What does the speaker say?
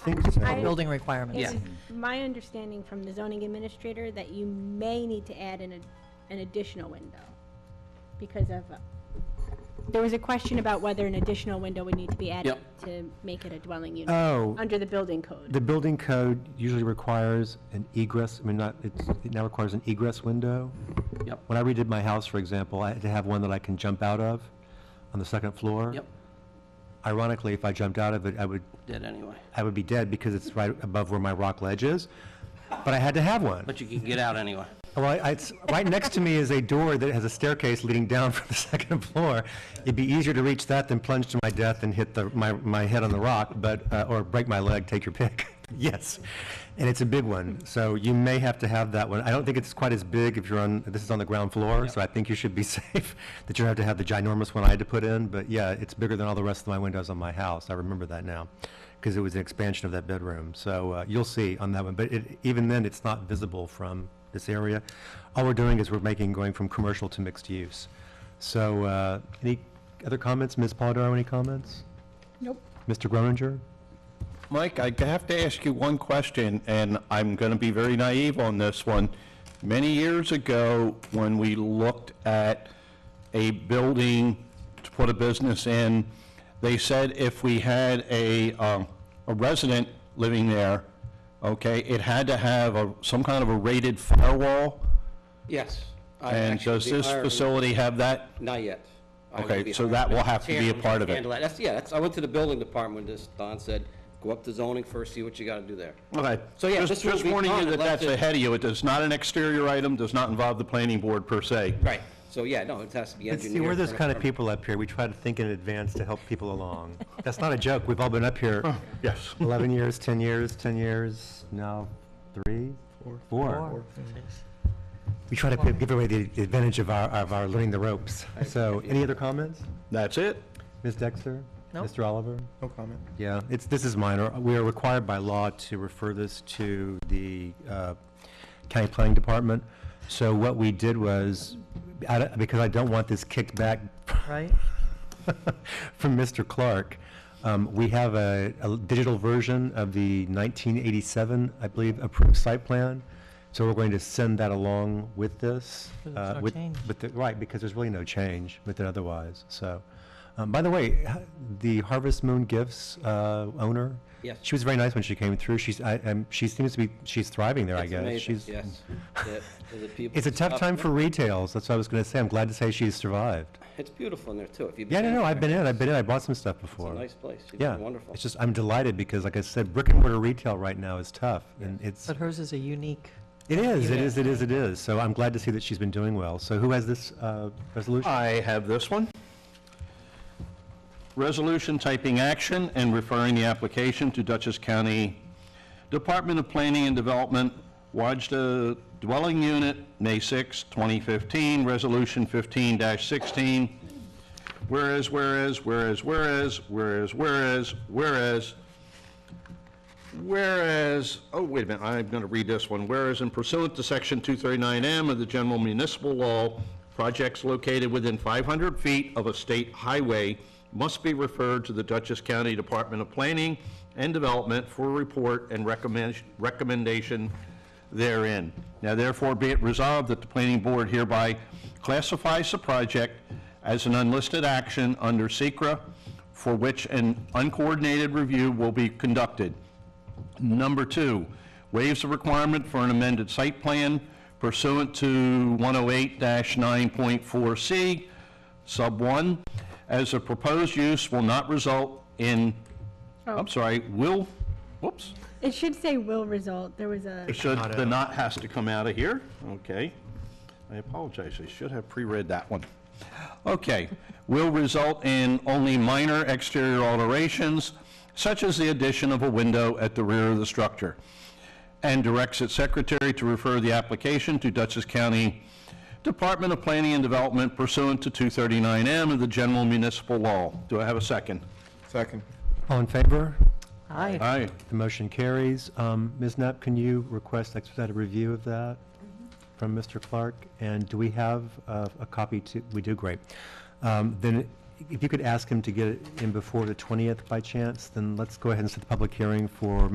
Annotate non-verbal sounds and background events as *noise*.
think so. I- Building requirements. It Yeah. was my understanding from the zoning administrator that you may need to add an, ad- an additional window because of, uh, there was a question about whether an additional window would need to be added Yep. to make it a dwelling unit, Oh, under the building code. the building code usually requires an egress, I mean, not, it's, it now requires an egress window. Yep. When I redid my house, for example, I had to have one that I can jump out of on the second floor. Yep, Ironically, if I jumped out of it, I would, did anyway. I would be dead because it's right above where my rock ledge is. But I had to have one. But you can get out anyway. Well, I- it's, right next to me is a door that has a staircase leading down from the *laughs* second floor. It'd be easier to reach that than plunge to my death and hit the, my, my head on the rock, but, uh, or break my leg, take your pick. *laughs* Yes. And it's a big one, so you may have to have that one. I don't think it's quite as big if you're on, this is on the ground floor, so I think you should be *laughs* safe that you don't have to have the ginormous one I had to put in, but yeah, it's bigger than all the rest of my windows on my house. I remember that now, because it was an expansion of that bedroom. So, uh, you'll see on that one, but it, even then, it's not visible from this area. All we're doing is we're making, going from commercial to mixed use. So, uh, any other comments? Ms. Polidoro, any comments? Nope. Mr. Groninger? Mike, I have to ask you one question, and I'm going to be very naive on this one. Many years ago, when we looked at a building to put a business in, they said if we had a, um, a resident living there, okay, it had to have a, some kind of a rated firewall. Yes. I And actually- does this I- facility have that? Not yet. I will Okay, be so hiring that will Mr. have to be a Chairman part of it. handle that. That's, yeah, that's, I went to the building department, this, Don said, go up to zoning first, see what you gotta do there. Okay. So, yeah, Just this will just be warning done you that unless that's it- ahead of you. It is not an exterior item, does not involve the planning board per se. Right. So, yeah, no, it has to be See, engineered. we're those for an kind of apartment. people up here. We try to think in advance to help people *laughs* along. That's not a joke. We've all been up here Yes. 11 years, 10 years, 10 years, now three, four. Four. We try to p- give away the advantage of our, of our learning the ropes. So, any other comments? That's it. Ms. Dexter? No. Mr. Oliver? No comment. Yeah, it's, this is minor. We are required by law to refer this to the uh, county planning department. So what we did was, I don't- because I don't want this kicked back Right? *laughs* from Mr. Clark, um, we have a, a digital version of the 1987, I believe, approved site plan. So we're going to send that along with this. There's uh, no with- change. with the- Right, because there's really no change with it otherwise, so. um, By the way, h- the Harvest Moon Gifts uh, owner? Yes. She was very nice when she came through. She's, I, um, she seems to be, she's thriving there, I It's guess. amazing, She's- *laughs* Yes. The- the people- It's a tough time for retails, that's what I was going to say. I'm glad to say she's survived. It's beautiful in there, too. If you've Yeah, been no, in no, there, I've been in, I've been in, I bought some stuff It's a before. nice place. You've Yeah, been wonderful. it's just, I'm delighted because like I said, brick and mortar retail right now is tough and it's, But hers is a unique, it is, it is, it is, it is. So I'm glad to see that she's been doing well. So who has this, uh, resolution? I have this one. Resolution typing action and referring the application to Dutchess County Department of Planning and Development, Wajda Dwelling Unit, May 6, 2015, Resolution 15-16. Whereas, whereas, whereas, whereas, whereas, whereas, whereas, Whereas, oh, wait a minute, I'm going to read this one. Whereas in pursuant to Section 239M of the General Municipal Law, projects located within 500 feet of a state highway must be referred to the Dutchess County Department of Planning and Development for report and recommend- recommendation therein. Now therefore be it resolved that the planning board hereby classifies the project as an unlisted action under Secra, for which an uncoordinated review will be conducted. Number two, waives the requirement for an amended site plan pursuant to 108-9.4C, sub 1, as the proposed use will not result in, I'm sorry, will, whoops, It should say will result, there was a, it should, the not has to come out of here, okay. I apologize, I should have pre-read that one. Okay, will result in only minor exterior alterations, such as the addition of a window at the rear of the structure, and directs its secretary to refer the application to Dutchess County Department of Planning and Development pursuant to 239M of the General Municipal Law. Do I have a second? Second. All in favor? hi, Aye. The motion carries. Um, Ms. Knapp, can you request expedited review of that Mm-hmm. from Mr. Clark? And do we have uh, a copy to, we do, great. Um, Then if you could ask him to get it in before the 20th by chance, then let's go ahead and set the public hearing for